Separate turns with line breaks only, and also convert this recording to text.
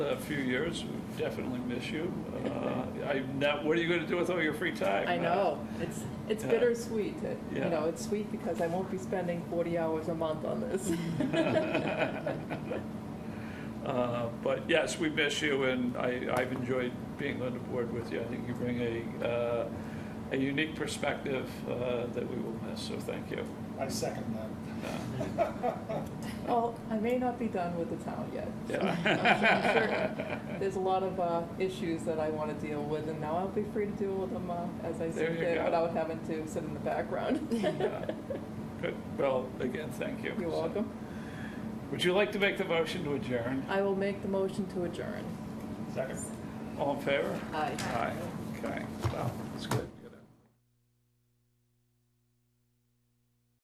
a few years. We Definitely miss you. Uh, I'm not, what are you going to do with all your free time?
I know, it's, it's
Yeah.
bittersweet, It-
Yeah.
you know, it's sweet because I won't be spending 40 hours a month on this.
Uh, But yes, we miss you, and I, I've enjoyed being on the board with you. I think you bring a, uh, a unique perspective uh, that we will miss, so thank you. Uh,
I second that.
Well, I may not be done with the town yet. so I'm
Yeah.
sure There's a lot of uh, issues that I want to deal with, and now I'll be free to deal with them uh, as I
There
see
you
fit
go.
without having to sit in the background.
Good. Well, again, thank you.
You're welcome.
Would you like to make the motion to adjourn?
I will make the motion to adjourn.
Second.
All in favor?
Aye.
Aye. Okay, wow, that's good.